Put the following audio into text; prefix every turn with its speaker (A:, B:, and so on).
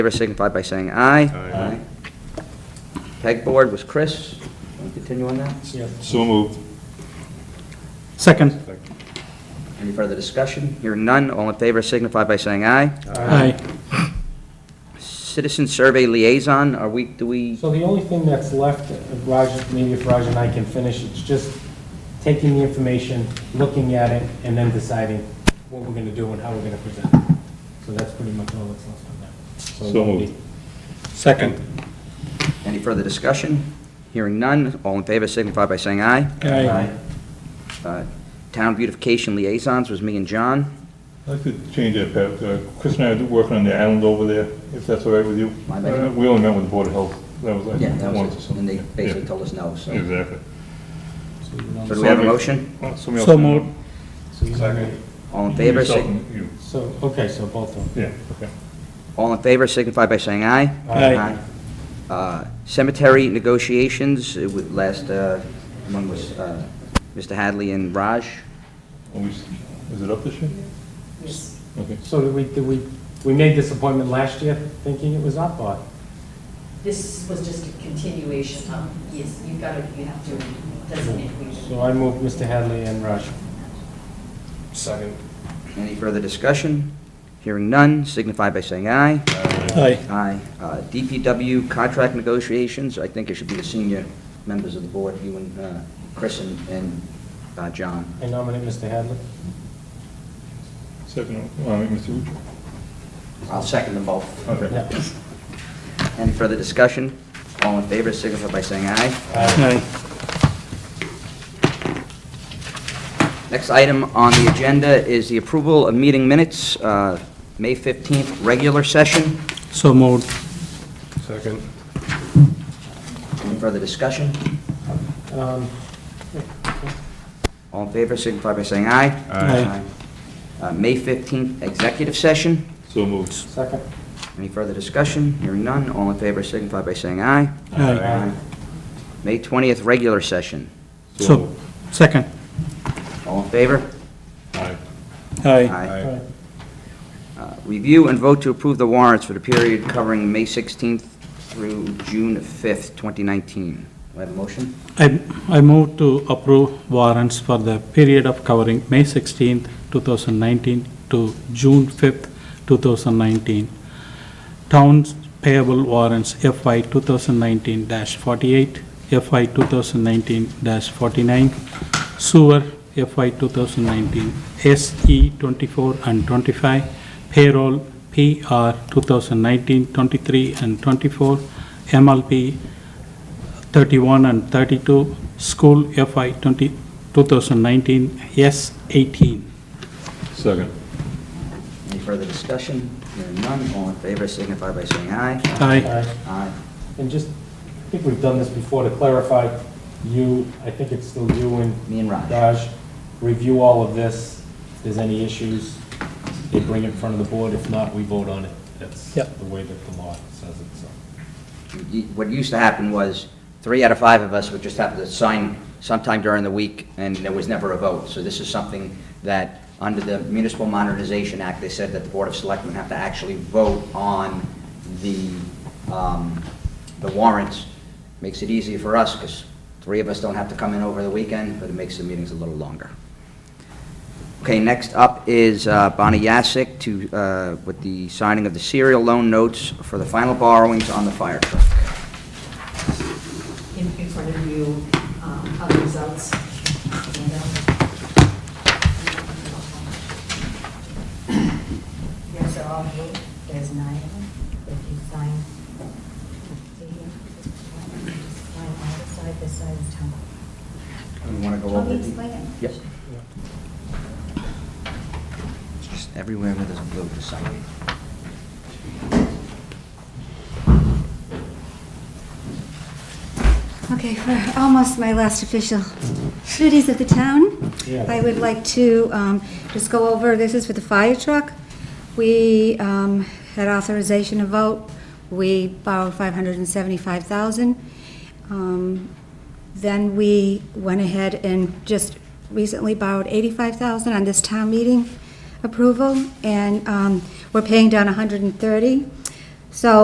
A: favor signify by saying aye. Aye. Pegboard was Chris. Want to Continue on that?
B: So moved.
C: Second.
A: Any further discussion? Hearing none, all in favor signify by saying aye.
C: Aye.
A: Citizen Survey Liaison, are we, do we,
D: So the only thing that's left, uh, Raj, maybe if Raj and I can finish, it's just taking the information, looking at it, and then deciding what we're gonna do and how we're gonna present it. So that's pretty much all that's left on that. it
B: So
D: won't be-
B: moved.
C: Second.
A: any further discussion? Hearing none, all in favor signify by saying aye.
C: Aye.
A: Uh, Town Beautification Liaisons was me and John.
B: I'd like to change that, Pat. Uh, Chris and I are working on the island over there, if that's all right with you.
A: My bad.
B: Uh, We only met with the Board of Health. That was
A: Yeah,
B: like
A: that
B: once or
A: was it.
B: something.
A: And they basically
B: Yeah.
A: told us no, so.
B: Exactly.
D: So you
A: So
D: don't-
A: do we have a motion?
B: Uh, somebody else
C: So
B: can-
C: moved.
D: so you don't-
A: All in favor,
B: Yourself
A: sig-
B: and you.
D: So, okay, so both of them.
B: Yeah, okay.
A: all in favor signify by saying aye.
C: Aye.
A: Uh, Cemetery negotiations, it would last, uh, one was uh, Mr. Hadley and Raj.
B: Are we s- Is it up this year? Okay.
D: So did we, did we, we made this appointment last year thinking it was up, or?
E: This was just a continuation of, yes, you've got to, you have to designate who
D: So
E: you.
D: I moved Mr. Hadley and Raj.
F: Second.
A: Any further discussion? Hearing none, signify by saying aye.
C: Aye.
A: Aye. Uh, DPW contract negotiations, I think it should be the senior members of the board, you and uh, Chris and- and uh, John.
D: I nominate Mr. Hadley.
B: Second, uh, all right, Mr. Rucci.
A: I'll second them both.
B: Okay.
D: Yeah.
A: Any further discussion? All in favor, signify by saying aye.
C: Aye.
A: Next item on the agenda is the approval of meeting minutes, uh, May 15th, regular session.
C: So moved.
F: Second.
A: Any further discussion?
D: Um,
A: All in favor, signify by saying aye.
C: Aye.
A: Aye. Uh, May 15th, executive session.
B: So moved.
D: Second.
A: Any further discussion? Hearing none, all in favor, signify by saying aye.
C: Aye.
A: May 20th, regular session.
B: So
C: So,
B: moved.
C: second.
A: All in favor?
B: Aye.
C: Aye.
D: All right.
A: Uh, Review and vote to approve the warrants for the period covering May 16th through June 5th, 2019. Do I have a motion?
C: I, I move to approve warrants for the period of covering May 16th, 2019 to June 5th, 2019. Towns payable warrants FY 2019-48, FY 2019-49, sewer FY 2019, SE 24 E and 25, payroll PR 2019-23 and 24, MLP 31 and 32, school FY 20 2019, S 18.
B: Second.
A: Any further discussion? Hearing none, all in favor, signify by saying aye.
C: Aye.
D: Aye.
A: Aye.
D: Uh, And just, I think we've done this before, to clarify, you, I think it's still you and
A: Me and Raj.
D: Raj, review all of this. If there's any issues, they bring it in front of the board. If not, we vote on it. That's
C: Yep.
D: the way that the law says it, so.
A: You- What used to happen was, three out of five of us would just have to sign sometime during the week, and there was never a vote. So this is something that, under the Municipal Modernization Act, they said that the Board of Selectmen have to actually vote on the, um, the warrants. Makes it easier for us, because three of us don't have to come in over the weekend, but it makes the meetings a little longer. Okay, next up is uh, Bonnie Yasek to, uh, with the signing of the serial loan notes for the final borrowings on the fire truck.
E: In in front of you, um, are the results. Yes, they're all good. There's nine of them. If you sign. Sign on this side, this side is town.
A: You want to go
E: Let
A: over
E: me
A: the...
E: explain it.
A: Yep. Just everywhere where there's blue, just sign it.
G: Okay, for almost my last official duties of the town,
D: Yeah.
G: I would like to um, just go over, this is for the fire truck. We um, had authorization to vote, we borrowed 575,000. Um, Then we went ahead and just recently borrowed 85,000 on this town meeting approval, and um, we're paying down 130. So